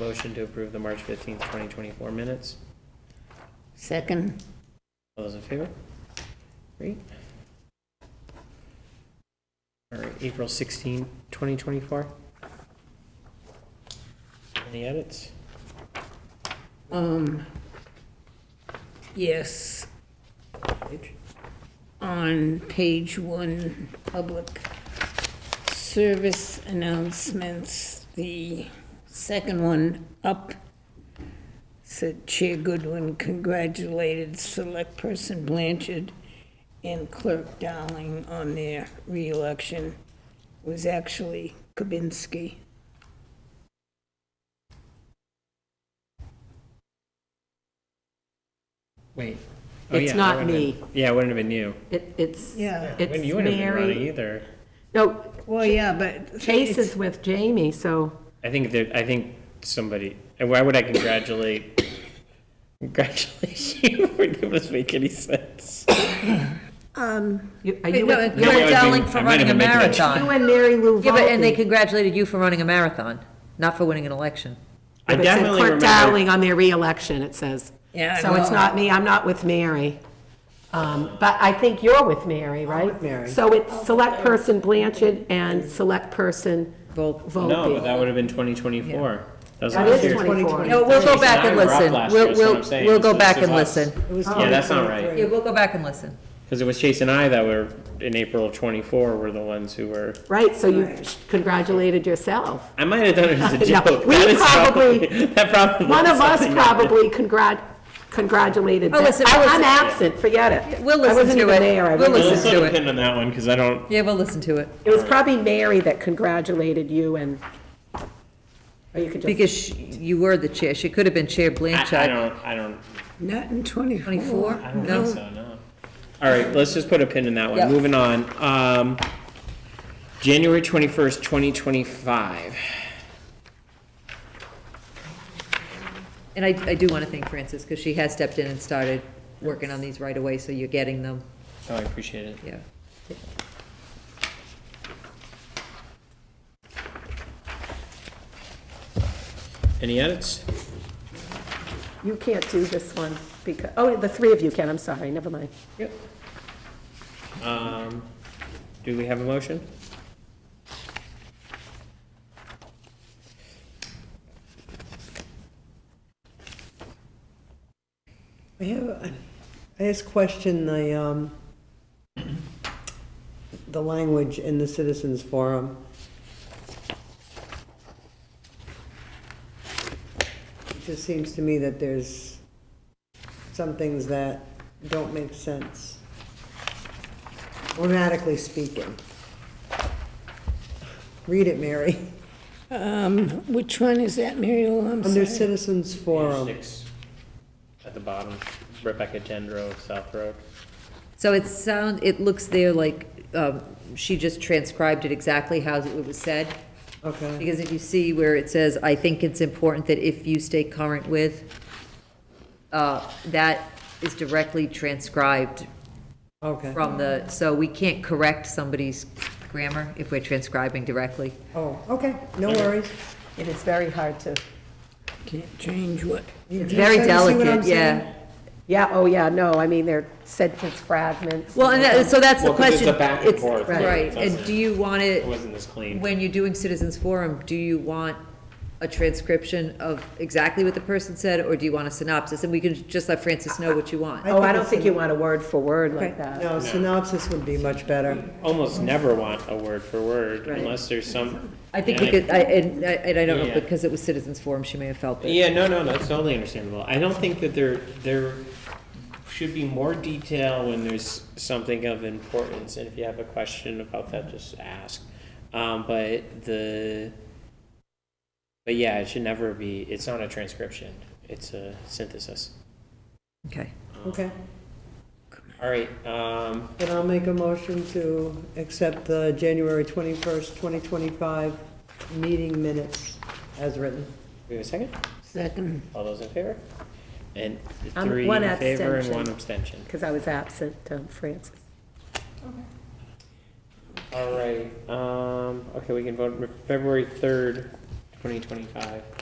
Motion to approve the March fifteenth, twenty twenty-four minutes. Second, All those in favor? Great. All right, April 16, 2024. Any edits? um, yes, Page? on page one, public service announcements, the second one up, said Chair Goodwin congratulated Select Person Blanchard and Clerk Darling on their reelection. It Was actually Kabinski. Wait. Oh, It's yeah, that not would've been- me. Yeah, it wouldn't have been you. It, it's, Yeah. it's Wouldn't- You wouldn't have been running Mary. either. No, Well, yeah, but. Chase is with Jamie, so I think that, I think somebody, and why would I congratulate? Congratulate you, it doesn't make any sense. you- are you No, with, No, I You're was darling being- for I might have running a been making a- you marathon. and Mary Lou Yeah, but, and they Volpe? congratulated you for running a marathon, not for winning an election. I It said definitely Clerk remember, Dowling on their reelection, it says. Yeah, I So it's know. not me, I'm not with Mary. Um, But I think you're with Mary, right? Mary. So it's Select Person Blanchard and Select Person no, but Volpe. that would have been 2024. That was That last is year. 24. No, we'll go Jason, back and I were up listen. last year, We'll, that's what we'll, I'm saying. we'll This go is back just and us. listen. Yeah, that's not right. Yeah, we'll go back and listen. Because it was Chase and I that were, in April of twenty-four, were the ones who were, Right, so you congratulated yourself. I might have done it as a No, joke. we That is probably- That probably. One of us something that- probably congrat, congratulated. Oh, them. listen, I- we'll I'm listen. absent, forget it. We'll I listen wasn't to even it. there, I We'll really- Well, listen. Let's Listen put to a it. pin on that one, because I don't, Yeah, we'll listen to it, It was probably Mary that congratulated you and, or you could just, because she- you were the chair, she could have been Chair I, I Blanchard. don't, I don't, Not in twenty. Twenty-four? I don't No. think so, no. All right, let's just put a pin in that Yeah. one. Moving on. Um, January twenty-first, twenty twenty-five. And I, I do want to thank Frances, because she has stepped in and started working on these right away, so you're getting them, Oh, I appreciate it. yeah. Any edits? you can't do this one because, oh, the three of you can, I'm sorry, never mind. Yep. Um, do we have a motion? I have, a- I just question the, um, the language in the citizens forum. It just seems to me that there's some things that don't make sense, grammatically speaking. Read it, Mary. Um, which one is that, Mary Lou? I'm Under sorry. citizens Page forum, six, at the bottom, Rebecca Tendro, South Road. So it sound, it looks there like, um, she just transcribed it exactly how it was said, okay. because if you see where it says, I think it's important that if you stay current with, uh, that is directly transcribed Okay, from the, so we can't correct somebody's grammar if we're transcribing directly. oh, okay, no worries. It is very hard to. Can't change what. You- It's you very see what I'm delicate, saying? yeah. Yeah, oh, yeah, no, I mean, they're sentence fragments. Well, and that, so that's the Well, 'cause it's question. a back and It's- forth, right. Right, and Doesn't- do you want It it, wasn't this clean. when you're doing citizens forum, do you want a transcription of exactly what the person said, or do you want a synopsis? And we can just let Francis know what you want. Oh, I don't think you want a word for word Right. like that. No, synopsis would be much better. almost never want a word for word Right. unless there's some. I think and we could, I, and, I- and I don't know, Yeah. because it was citizens forum, she may have felt that. Yeah, no, no, that's totally understandable. I don't think that there there should be more detail when there's something of importance, and if you have a question about that, just ask. Um, but the but yeah, it should never be. It's not a transcription. It's a synthesis. Okay. Okay, All right. Um, then I'll make a motion to accept the January 21st, 2025 meeting minutes as written. we have a second. Second, All those in favor? And Um, three one in favor and abstention. one abstention. Because I was absent, um, Francis. All right, um, okay, we can vote for February third, twenty twenty-five.